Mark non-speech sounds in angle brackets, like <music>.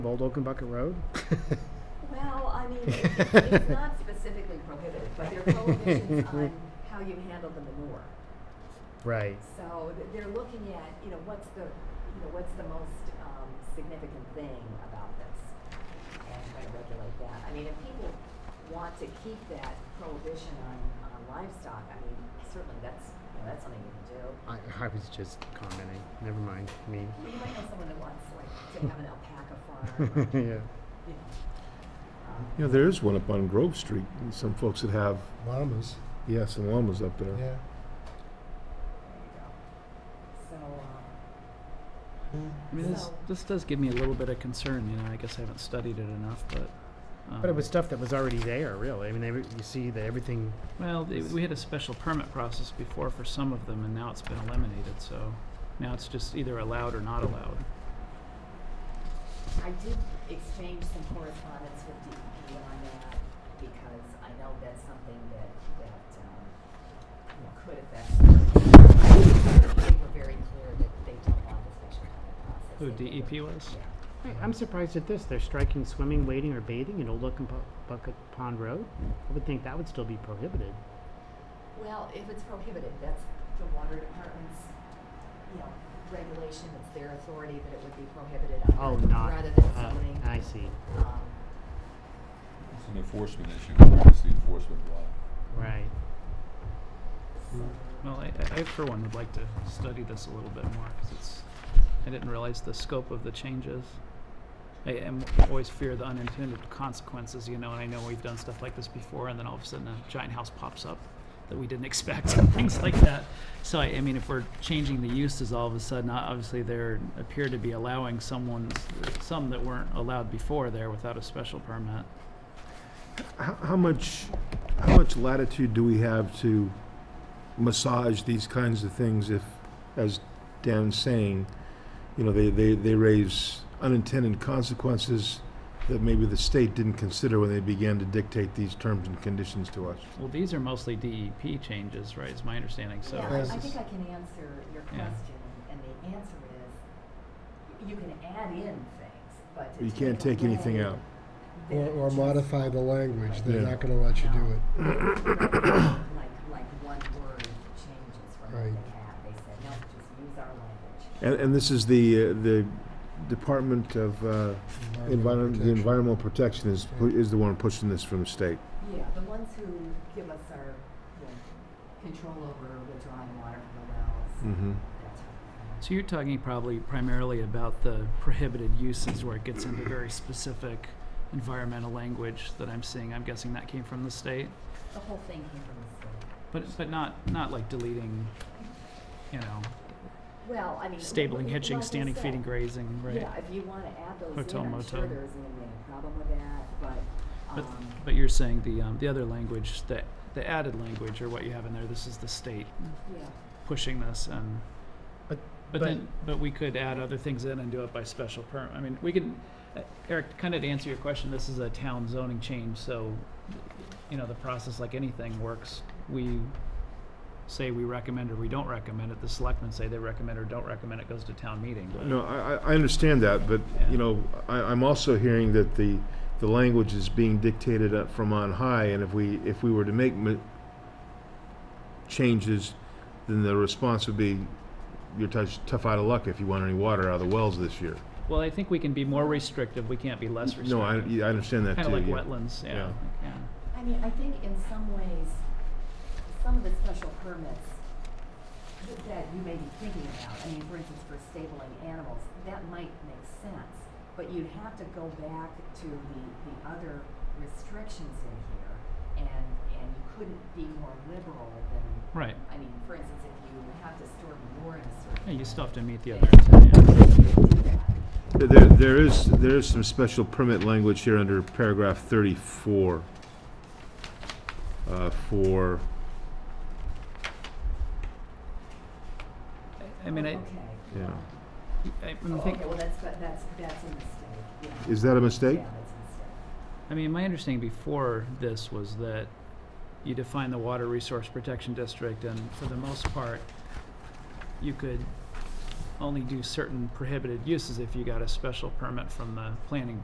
Old Oaken Bucket Road? Well, I mean, it's it's not specifically prohibited, but there are prohibitions on how you handle the manure. <laughs> Right. So th- they're looking at, you know, what's the, you know, what's the most, um, significant thing about this? And try to regulate that. I mean, if people want to keep that prohibition on, on livestock, I mean, certainly that's, you know, that's something you can do. I, I was just commenting. Never mind. Me. <laughs> You might know someone that wants like to have an alpaca farm, or, yeah. you know. um, Yeah, there is one up on Grove Street, and some folks that have, llamas, yes, and llamas up there. yeah. There you go. So, um, I mean, this, So- this does give me a little bit of concern, you know, I guess I haven't studied it enough, but. But it um, was stuff that was already there, really. I mean, every, you see that everything. Well, they- we had a special permit process before for some of them, and now it's been eliminated, so now it's just either allowed or not allowed. I did exchange some correspondence with DEP on that because I know that's something that, that, um, you know, could affect. certain- They were very clear that they don't want this special permit process. Who, They think DEP it- was? Yeah. I- I'm surprised at this. They're striking swimming, wading, or bathing in Old Oaken Bu- Bucket Pond Road. I would think that would still be prohibited. Well, if it's prohibited, that's the water department's, you know, regulation, it's their authority that it would be prohibited Oh, under, not. rather than uh, zoning. I see. Um, It's an enforcement issue, it's the enforcement law. Right. so- Well, I, I- I for one would like to study this a little bit more, because it's, I didn't realize the scope of the changes. I am always fear the unintended consequences, you know, and I know we've done stuff like this before, and then all of a sudden a giant house pops up that we didn't <laughs> expect, and things like that. So I, I mean, if we're changing the uses all of a sudden, o- obviously there appear to be allowing someone's, some that weren't allowed before there without a special permit. How, how much, how much latitude do we have to massage these kinds of things if, as Dan's saying, you know, they, they, they raise unintended consequences that maybe the state didn't consider when they began to dictate these terms and conditions to us? Well, these are mostly DEP changes, right, is my understanding, so. Yeah, I- I Yes. think I can answer your Yeah. question, and the answer is, y- you can add in things, but to You can't take away anything out. the- Or, or just modify the language, they're Yeah. not gonna let you do it. Like, like one word changes from what Right. they have, they said, no, just use our language. And, and this is the, uh, the Department of, uh, Environment, the protection. environmental protection is, pu- is the one pushing this from the state. Yeah, the ones who give us our, you know, control over withdrawing water from the wells, Mm-hmm. that type of thing. So you're talking probably primarily about the prohibited uses where it gets into very specific environmental language that I'm seeing. I'm guessing that came from the state, The whole thing came from the state. but but not not like deleting, you know, Well, I mean. stabling, like hitching, you standing, said, feeding, grazing, right? Yeah, if you wanna add those in, Hotel, I'm sure motel. there isn't gonna be any problem with that, but, But um, but you're saying the um, the other language that the added language or what you have in there. This is the state yeah. pushing this and. But- But but- then, but we could add other things in and do it by special permit. I mean, we could, uh, Eric, kind of to answer your question, this is a town zoning change, so, you know, the process, like anything, works. We say we recommend or we don't recommend it, the selectmen say they recommend or don't recommend, it goes to town meeting. but- No, I, I I understand that, but, Yeah. you know, I, I'm also hearing that the, the language is being dictated up from on high, and if we, if we were to make ma- changes, then the response would be, you're tough, tough out of luck if you want any water out of the wells this year. Well, I think we can be more restrictive, we can't be less restrictive. No, I, I understand that too. Kind of like yeah. wetlands, yeah, Yeah. yeah. I mean, I think in some ways, some of the special permits that you may be thinking about, I mean, for instance, for stabling animals, that might make sense. But you'd have to go back to the, the other restrictions in here, and, and you couldn't be more liberal than, Right, I mean, for instance, if you have to store manure in a Yeah, certain. you still have to meet the way, other two, yeah. you do that. There, there is, there is some special permit language here under paragraph thirty-four. Uh, for, I mean, I, Okay. yeah. I Oh, I'm think, okay, well, that's, that's, that's a mistake, yeah. is that a mistake? Yeah, that's a mistake. I mean, my understanding before this was that you define the water resource protection district and for the most part, you could only do certain prohibited uses if you got a special permit from the planning